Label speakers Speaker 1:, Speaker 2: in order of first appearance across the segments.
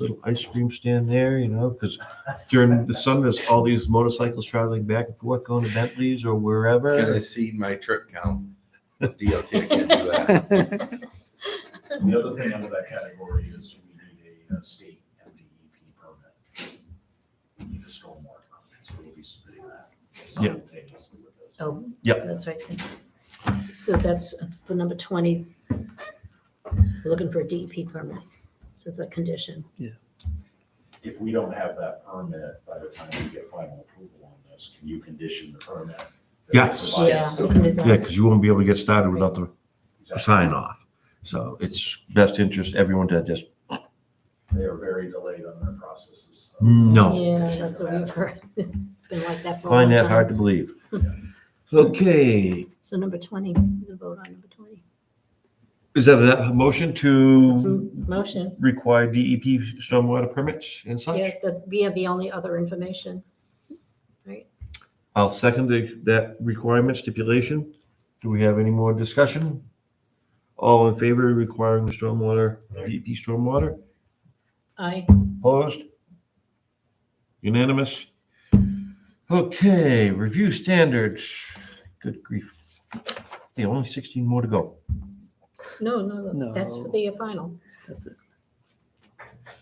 Speaker 1: little ice cream stand there, you know, because during the summer, there's all these motorcycles traveling back and forth, going to Bentley's or
Speaker 2: It's gonna
Speaker 1: wherever.
Speaker 2: exceed my trip count. DOT can't do that.
Speaker 3: And The other thing under that category is we need a uh, state MDEP permit. We need a stormwater permit, so we'll be submitting that simultaneously with those.
Speaker 4: Oh.
Speaker 1: Yep.
Speaker 4: That's right. So that's for number twenty. We're looking for a DEP permit. So it's a condition.
Speaker 3: If we don't have that permit by the time we get final approval on this, can you condition the permit? that they
Speaker 1: Yes.
Speaker 3: provide
Speaker 4: Yeah,
Speaker 3: us-
Speaker 4: we can do
Speaker 1: Yeah,
Speaker 4: that.
Speaker 1: because you won't be able to get started without the
Speaker 3: Exactly.
Speaker 1: sign off. So it's best interest everyone to just,
Speaker 3: They are very delayed on their processes.
Speaker 1: no,
Speaker 4: Yeah, that's what we've heard. Been like that for a long
Speaker 1: find that hard to
Speaker 4: time.
Speaker 1: believe. Okay,
Speaker 4: So number twenty, the vote on number twenty.
Speaker 1: is that a motion
Speaker 4: That's a
Speaker 1: to
Speaker 4: motion.
Speaker 1: require DEP stormwater permits and
Speaker 4: Yeah,
Speaker 1: such?
Speaker 4: that, we have the only other information.
Speaker 1: I'll second the- that requirement stipulation. Do we have any more discussion? All in favor of requiring the stormwater, DEP stormwater?
Speaker 4: I,
Speaker 1: Opposed? Unanimous? Okay, review standards. Good grief. There are only 16 more to go.
Speaker 4: no, no, that's- that's for
Speaker 5: No.
Speaker 4: the final.
Speaker 5: That's it.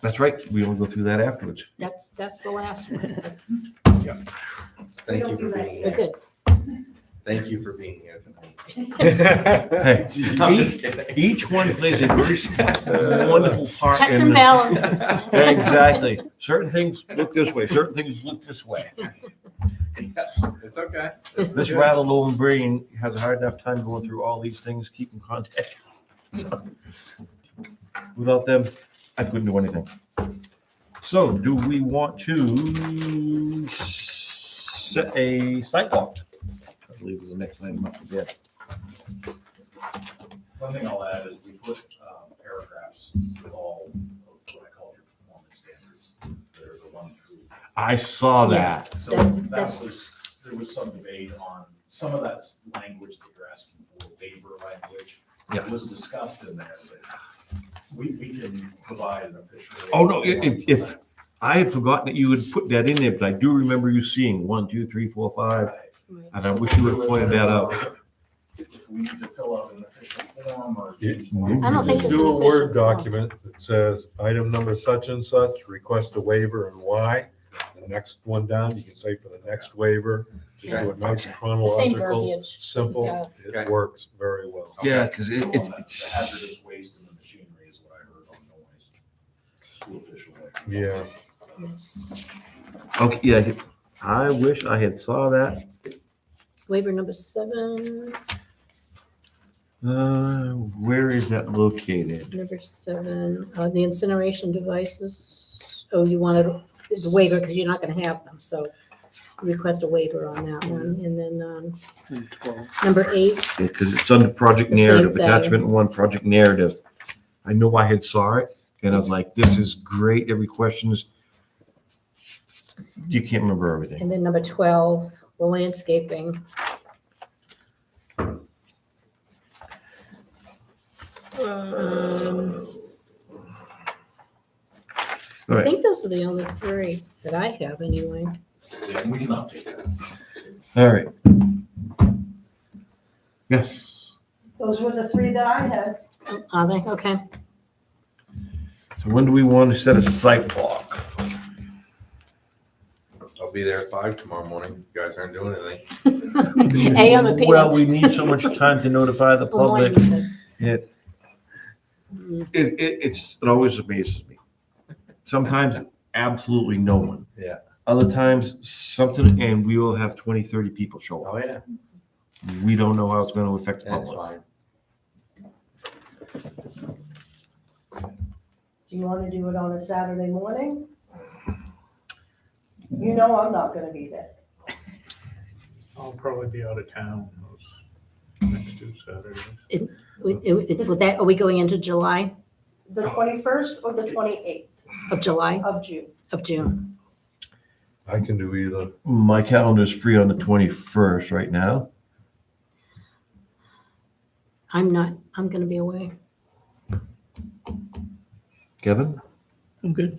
Speaker 1: That's right, we will go through that afterwards.
Speaker 4: That's, that's the last one.
Speaker 2: Thank you for being
Speaker 4: We're
Speaker 2: here.
Speaker 4: good.
Speaker 2: Thank you for being here tonight.
Speaker 1: Hey,
Speaker 2: I'm
Speaker 1: each-
Speaker 2: just kidding.
Speaker 1: Each one plays a very wonderful part.
Speaker 4: Checks
Speaker 1: in
Speaker 4: and
Speaker 1: the-
Speaker 4: balances.
Speaker 1: Exactly. Certain things look this way, certain things look this way.
Speaker 2: It's okay.
Speaker 1: This
Speaker 2: good.
Speaker 1: rather old brain has a hard enough time going through all these things, keeping contact. So, Without them, I couldn't do anything. So do we want to set a sidewalk? I believe is the next item up for bid.
Speaker 3: One thing I'll add is we put um, paragraphs with all of what I call your performance standards. They're the one through.
Speaker 1: I saw that.
Speaker 4: Yes,
Speaker 3: So
Speaker 4: that-
Speaker 3: that
Speaker 4: that's-
Speaker 3: was, there was some debate on, some of that language that you're asking for, waiver language.
Speaker 1: Yeah.
Speaker 3: Was discussed in there, but we, we can provide an official.
Speaker 1: Oh, no, i- if- if- I had forgotten that you would put that in there, but I do remember you seeing one, two, three, four, five,
Speaker 3: Right.
Speaker 1: and I wish you would have pointed that out.
Speaker 3: If we need to fill out an official form or.
Speaker 4: I don't think it's
Speaker 6: Just
Speaker 4: an
Speaker 6: Do a
Speaker 4: official form.
Speaker 6: Word document that says, item number such and such, request a waiver and why. The next one down, you can say for the next waiver, just do it nice and
Speaker 4: The Same
Speaker 6: chronological,
Speaker 4: verbiage.
Speaker 6: simple. It
Speaker 2: Okay.
Speaker 6: works very well.
Speaker 1: Yeah, because it,
Speaker 3: The
Speaker 1: it's,
Speaker 3: hazardous waste in the machinery is what I heard on noise. To official. waiver.
Speaker 6: Yeah.
Speaker 4: Yes.
Speaker 1: okay, yeah, I wish I had saw that.
Speaker 4: Waiver number seven,
Speaker 1: Uh, where is that located?
Speaker 4: number seven, uh, the incineration devices. Oh, you wanted the waiver because you're not going to have them, so request a waiver on that one. And then, um,
Speaker 5: And 12.
Speaker 4: number eight,
Speaker 1: Because it's under project
Speaker 4: The same
Speaker 1: narrative,
Speaker 4: thing.
Speaker 1: attachment one, project narrative. I know I had saw it, and I was like, this is great, every question's. You can't remember everything.
Speaker 4: and then number twelve, the landscaping. Um,
Speaker 1: All
Speaker 4: I
Speaker 1: right.
Speaker 4: think those are the only three that I have anyway.
Speaker 3: Yeah, and we can update that.
Speaker 1: All right. Yes.
Speaker 7: Those were the three that I had.
Speaker 4: Oh, Are they? Okay.
Speaker 1: So when do we want to set a sidewalk?
Speaker 2: I'll be there at five tomorrow morning. if You guys aren't doing anything.
Speaker 4: A on the P.
Speaker 1: Well, we need so much time to notify the public. It,
Speaker 4: Mm,
Speaker 1: it, it- it's, it always amazes me. Sometimes absolutely no one.
Speaker 2: Yeah.
Speaker 1: Other times something, and we will have 20, 30 people show up.
Speaker 2: yeah.
Speaker 1: We don't know how it's going to affect the
Speaker 2: That's
Speaker 1: public.
Speaker 2: fine.
Speaker 7: Do you want to do it on a Saturday morning? You know I'm not gonna be there.
Speaker 8: I'll probably be out of town those next two Saturdays.
Speaker 4: With that, are we going into July,
Speaker 7: The 21st or the 28th
Speaker 4: of July,
Speaker 7: of June?
Speaker 4: of June?
Speaker 6: I can do either.
Speaker 1: My calendar is free on the 21st right now.
Speaker 4: I'm not, I'm going to be away.
Speaker 1: Kevin?
Speaker 5: I'm good.